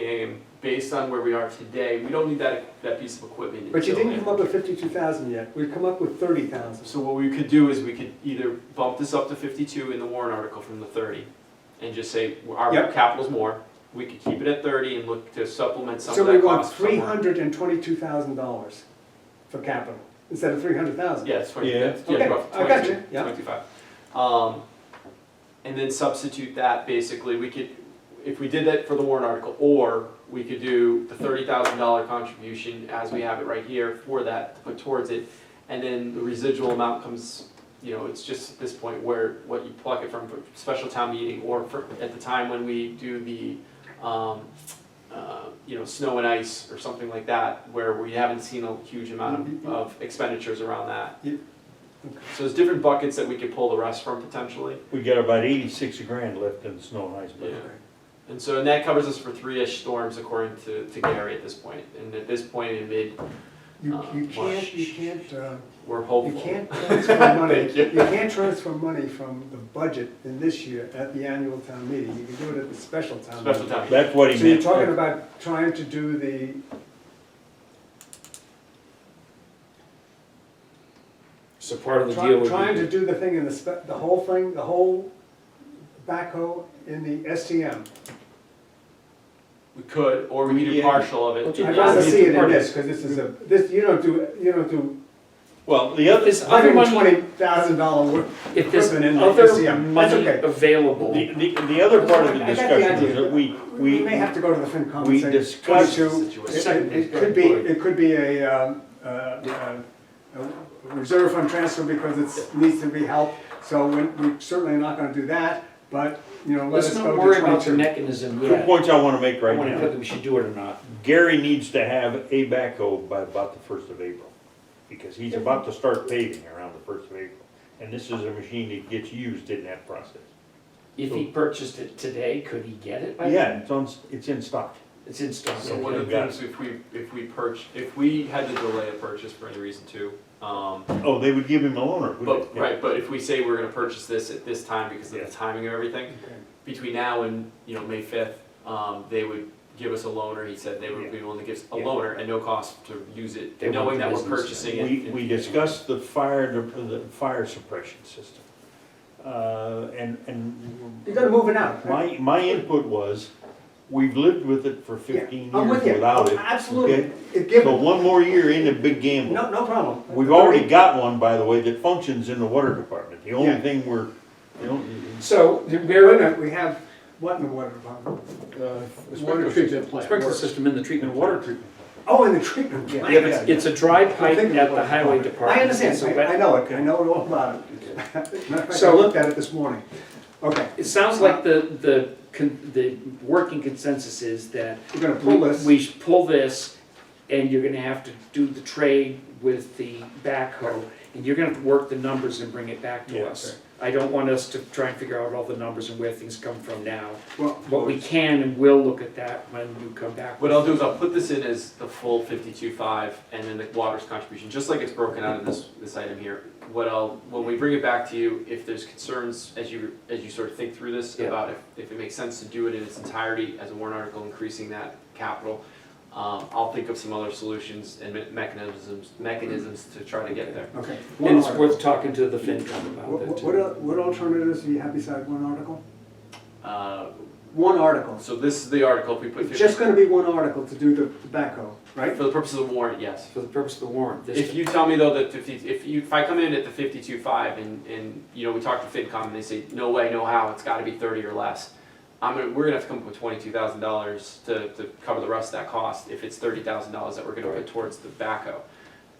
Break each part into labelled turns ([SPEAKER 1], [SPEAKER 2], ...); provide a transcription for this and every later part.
[SPEAKER 1] game based on where we are today, we don't need that, that piece of equipment.
[SPEAKER 2] But you
[SPEAKER 1] until
[SPEAKER 2] didn't come up with fifty-two thousand yet, we've come up with thirty thousand.
[SPEAKER 1] So what we could do is we could either bump this up to fifty-two in the warrant article from the thirty, and just say, well, our
[SPEAKER 2] Yep.
[SPEAKER 1] capital's more, we could keep it at thirty and look to supplement some
[SPEAKER 2] So
[SPEAKER 1] of
[SPEAKER 2] we
[SPEAKER 1] that
[SPEAKER 2] want
[SPEAKER 1] cost
[SPEAKER 2] three
[SPEAKER 1] somewhere.
[SPEAKER 2] hundred and twenty-two thousand dollars for capital, instead of three hundred thousand.
[SPEAKER 1] Yeah, it's twenty,
[SPEAKER 3] Yeah.
[SPEAKER 1] yeah,
[SPEAKER 2] Okay,
[SPEAKER 1] rough,
[SPEAKER 2] I got
[SPEAKER 1] 22,
[SPEAKER 2] you, yeah.
[SPEAKER 1] 25. Um, and then substitute that, basically, we could, if we did that for the warrant article, or we could do the thirty thousand dollar contribution as we have it right here for that, to put towards it. And then the residual amount comes, you know, it's just at this point where, what you pluck it from for special town meeting, or for, at the time when we do the, um, uh, you know, snow and ice or something like that, where we haven't seen a huge
[SPEAKER 2] Mm-hmm.
[SPEAKER 1] amount of- of expenditures around that.
[SPEAKER 2] Yep.
[SPEAKER 1] So there's different buckets that we could pull the rest from potentially,
[SPEAKER 3] We got about eighty-six grand left in the snow and ice
[SPEAKER 1] yeah.
[SPEAKER 3] budget.
[SPEAKER 1] And so, and that covers us for three-ish storms according to, to Gary at this point, and at this point in mid,
[SPEAKER 2] You,
[SPEAKER 1] Uh,
[SPEAKER 2] you
[SPEAKER 1] wash.
[SPEAKER 2] can't, you can't, uh,
[SPEAKER 1] we're
[SPEAKER 2] you
[SPEAKER 1] hopeful.
[SPEAKER 2] can't transfer money,
[SPEAKER 1] Thank you.
[SPEAKER 2] you can't transfer money from the budget in this year at the annual town meeting, you can do it at the special town meeting.
[SPEAKER 1] Special town meeting.
[SPEAKER 3] That's what he
[SPEAKER 2] So you're
[SPEAKER 3] meant.
[SPEAKER 2] talking about trying to do the.
[SPEAKER 4] So part of the
[SPEAKER 2] try-
[SPEAKER 4] deal would be.
[SPEAKER 2] Trying to do the thing in the spe, the whole thing, the whole backhoe in the STM.
[SPEAKER 1] We could, or we could do
[SPEAKER 3] Yeah.
[SPEAKER 1] partial of it.
[SPEAKER 4] Okay.
[SPEAKER 2] I'd
[SPEAKER 4] Yeah,
[SPEAKER 2] rather
[SPEAKER 4] it's
[SPEAKER 2] see it in
[SPEAKER 4] important.
[SPEAKER 2] this, because this is a, this, you don't do, you don't do
[SPEAKER 3] Well, the other,
[SPEAKER 4] Is other
[SPEAKER 2] hundred and
[SPEAKER 4] money,
[SPEAKER 2] twenty thousand dollar work.
[SPEAKER 4] if there's
[SPEAKER 2] equipment in the
[SPEAKER 4] other
[SPEAKER 2] SCM, that's
[SPEAKER 4] money
[SPEAKER 2] okay.
[SPEAKER 4] available,
[SPEAKER 3] the, the, the other part of the
[SPEAKER 2] I got the
[SPEAKER 3] discussion
[SPEAKER 2] idea.
[SPEAKER 3] is that we,
[SPEAKER 2] We
[SPEAKER 3] we,
[SPEAKER 2] may have to go to the FinCom
[SPEAKER 3] we
[SPEAKER 2] and say
[SPEAKER 3] discussed-
[SPEAKER 2] twenty-two. It- It it could be, it could be a, um, uh, uh, a reserve fund transfer because it needs to be helped, so we- we're certainly not gonna do that, but, you know, let
[SPEAKER 4] let's
[SPEAKER 2] us go
[SPEAKER 4] not worry
[SPEAKER 2] to
[SPEAKER 4] about the
[SPEAKER 2] twenty-two.
[SPEAKER 4] mechanism
[SPEAKER 3] two
[SPEAKER 4] yet.
[SPEAKER 3] points I wanna make
[SPEAKER 4] I
[SPEAKER 3] right
[SPEAKER 4] wanna whether
[SPEAKER 3] now.
[SPEAKER 4] we should do it or not.
[SPEAKER 3] Gary needs to have a backhoe by about the first of April, because he's about to start paving around the first of April. And this is a machine that gets used in that process.
[SPEAKER 4] If he purchased it today, could he get it by then?
[SPEAKER 3] Yeah, it's on, it's in stock.
[SPEAKER 4] It's in stock.
[SPEAKER 1] So one of the
[SPEAKER 3] Yeah.
[SPEAKER 1] things, if we, if we perch, if we had to delay a purchase for any reason too, um,
[SPEAKER 3] Oh, they would give him a loaner, wouldn't
[SPEAKER 1] But,
[SPEAKER 3] they?
[SPEAKER 1] right, but if we say we're gonna purchase this at this time because of
[SPEAKER 3] Yeah.
[SPEAKER 1] the timing of everything, between now and, you know, May fifth, um, they would give us a loaner, he said they would be willing to give us a
[SPEAKER 3] Yeah.
[SPEAKER 1] loaner at no cost to use it,
[SPEAKER 4] They want
[SPEAKER 1] knowing
[SPEAKER 4] the
[SPEAKER 1] that we're
[SPEAKER 4] business, yeah.
[SPEAKER 1] purchasing it.
[SPEAKER 3] We, we discussed the fire, de- the fire suppression system. Uh, and, and.
[SPEAKER 2] You gotta move it out. right?
[SPEAKER 3] My, my input was, we've lived with it for
[SPEAKER 2] Yeah,
[SPEAKER 3] fifteen
[SPEAKER 2] I'm
[SPEAKER 3] years
[SPEAKER 2] with you.
[SPEAKER 3] without it.
[SPEAKER 2] Absolutely,
[SPEAKER 3] okay?
[SPEAKER 2] it give,
[SPEAKER 3] So
[SPEAKER 2] no,
[SPEAKER 3] one more year in a big gamble.
[SPEAKER 2] no problem.
[SPEAKER 3] We've already got one, by the way, that functions in the water department. The only
[SPEAKER 2] Yeah.
[SPEAKER 3] thing we're, the only.
[SPEAKER 4] So,
[SPEAKER 2] Wait a minute, we have, what in the water department?
[SPEAKER 4] Uh, Water treatment plant. Sprinkler system in the treatment water treatment.
[SPEAKER 2] Oh, in the treatment
[SPEAKER 4] Yeah,
[SPEAKER 2] plant.
[SPEAKER 4] it's, it's a dry pipe
[SPEAKER 2] thinking
[SPEAKER 4] at
[SPEAKER 2] of
[SPEAKER 4] the
[SPEAKER 2] water
[SPEAKER 4] highway
[SPEAKER 2] department.
[SPEAKER 4] department.
[SPEAKER 2] I understand,
[SPEAKER 4] So
[SPEAKER 2] I-
[SPEAKER 4] that-
[SPEAKER 2] I know it, I know it all about it. Matter of fact, I
[SPEAKER 4] So-
[SPEAKER 2] looked at it this morning. Okay,
[SPEAKER 4] It sounds like the, the, con- the working consensus is that
[SPEAKER 2] we're gonna pull
[SPEAKER 4] we
[SPEAKER 2] this.
[SPEAKER 4] we should pull this, and you're gonna have to do the trade with the backhoe, and you're gonna have to work the numbers and bring it back to
[SPEAKER 3] Yeah,
[SPEAKER 4] us. I don't want us to try and figure out all the numbers and where things come from now,
[SPEAKER 2] Well,
[SPEAKER 4] but we can and will look at that when you come back.
[SPEAKER 1] What I'll do is I'll put this in as the full fifty-two five and then the water's contribution, just like it's broken out in this, this item here. What I'll, when we bring it back to you, if there's concerns as you, as you sort of think through this
[SPEAKER 4] Yeah.
[SPEAKER 1] about if, if it makes sense to do it in its entirety as a warrant article, increasing that capital, um, I'll think of some other solutions and me- mechanisms, mechanisms to try to get there.
[SPEAKER 2] Okay.
[SPEAKER 4] And it's worth talking to the FinCom about
[SPEAKER 2] What,
[SPEAKER 4] that
[SPEAKER 2] what-
[SPEAKER 4] too.
[SPEAKER 2] what al- what alternatives do you have beside one article?
[SPEAKER 1] Uh,
[SPEAKER 2] One article.
[SPEAKER 1] so this is the article, if we put
[SPEAKER 2] It's
[SPEAKER 1] fifty,
[SPEAKER 2] just gonna be one article to do the tobacco, right?
[SPEAKER 1] for the purpose of the warrant, yes.
[SPEAKER 4] For the purpose of the warrant, this.
[SPEAKER 1] If you tell me though that fifty, if you, if I come in at the fifty-two five and, and, you know, we talk to FinCom and they say, no way, no how, it's gotta be thirty or less. I'm gonna, we're gonna have to come up with twenty-two thousand dollars to, to cover the rest of that cost, if it's thirty thousand dollars that we're gonna put towards the backhoe.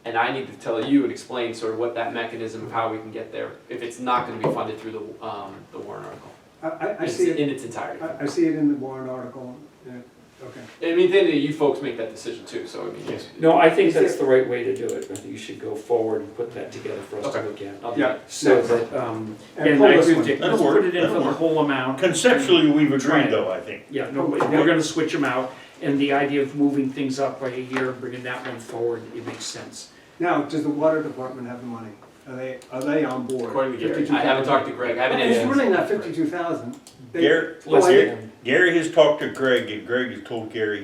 [SPEAKER 1] And I need to tell you and explain sort of what that mechanism of how we can get there, if it's not gonna be funded through the, um, the warrant article.
[SPEAKER 2] I, I, I
[SPEAKER 1] It's
[SPEAKER 2] see it,
[SPEAKER 1] In its entirety.
[SPEAKER 2] I, I see it in the warrant article, yeah, okay.
[SPEAKER 1] I mean, then you folks make that decision too, so I mean, it's-
[SPEAKER 4] No, I think
[SPEAKER 2] Is there-
[SPEAKER 4] that's the right way to do it, I think you should go forward and put that together for us to
[SPEAKER 1] Okay.
[SPEAKER 4] look at.
[SPEAKER 1] I'll do
[SPEAKER 2] Yeah.
[SPEAKER 4] So that, um,
[SPEAKER 2] And
[SPEAKER 4] and
[SPEAKER 2] pull
[SPEAKER 4] I
[SPEAKER 2] this
[SPEAKER 4] agree
[SPEAKER 2] one.
[SPEAKER 4] with Dick,
[SPEAKER 3] That'll
[SPEAKER 4] let's put
[SPEAKER 3] work.
[SPEAKER 4] it in for
[SPEAKER 3] That'll
[SPEAKER 4] the
[SPEAKER 3] work.
[SPEAKER 4] whole amount.
[SPEAKER 3] Conceptually, we've
[SPEAKER 4] Try it.
[SPEAKER 3] agreed though, I think.
[SPEAKER 4] Yeah, no, we- we're gonna switch them out, and the idea of moving things up by a year, and bringing that one forward, it makes sense.
[SPEAKER 2] Now, does the water department have the money? Uh, Are they, are they on board?
[SPEAKER 1] According to Gary,
[SPEAKER 2] 52,000.
[SPEAKER 1] I haven't talked to Greg, I haven't.
[SPEAKER 2] It's
[SPEAKER 1] asked him.
[SPEAKER 2] really not fifty-two thousand. Oh,
[SPEAKER 3] Gary,
[SPEAKER 4] Let's
[SPEAKER 3] Gary-
[SPEAKER 4] get-
[SPEAKER 3] Gary has talked to Greg, and Greg has told Gary